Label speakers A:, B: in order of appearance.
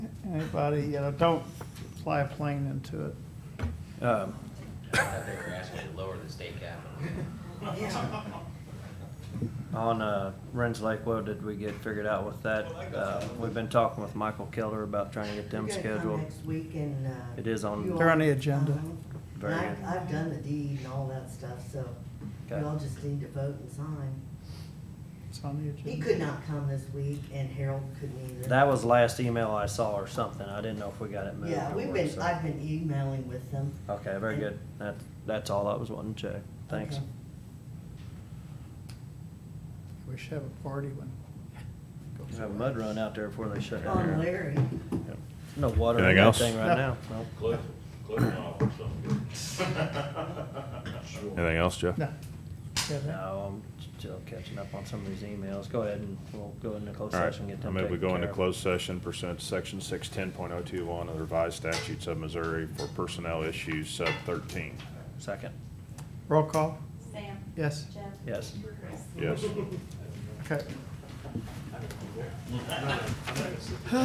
A: anybody, you know, don't fly a plane into it.
B: Um,
C: I think you're asking to lower the state cap.
B: On uh, Ren's Lake, what did we get figured out with that? Uh, We've been talking with Michael Keller about trying to get them
D: They're gonna come
B: scheduled.
D: Next week and, uh.
B: It is on-
D: you
A: They're on
D: all-
A: the agenda.
D: Uh-huh.
B: Very
D: And
B: good.
D: I, I've done the deed and all that stuff, so
B: Okay.
D: we all just need to vote and sign.
A: It's on the agenda.
D: He could not come this week and Harold couldn't either.
B: That was last email I saw or something. I didn't know if we got it moved.
D: Yeah,
B: or
D: we've
B: what,
D: been,
B: so-
D: I've been emailing with them.
B: Okay, very good. That, that's all I was wanting to check. Thanks.
D: Okay.
A: We should have a party when.
B: Just have a mud run out there before they shut down.
D: On
B: here.
D: Larry.
B: Yep. No water in
E: Anything
B: that
E: else?
B: thing right now. Well,
F: Cliff, Cliff and I'll work something good.
E: Anything else, Jeff?
A: No. Yeah, that-
B: No, I'm still catching up on some of these emails. Go ahead and we'll go into closed
E: All right,
B: session, get
E: I
B: them
E: move we
B: taken
E: go
B: care
E: into
B: of.
E: closed session pursuant to section six ten point oh two one of the revised statutes of Missouri for personnel issues sub thirteen.
B: Second.
A: Roll call,
G: Sam?
A: yes,
G: Jeff?
B: Yes.
G: Chris?
E: Yes?
A: okay.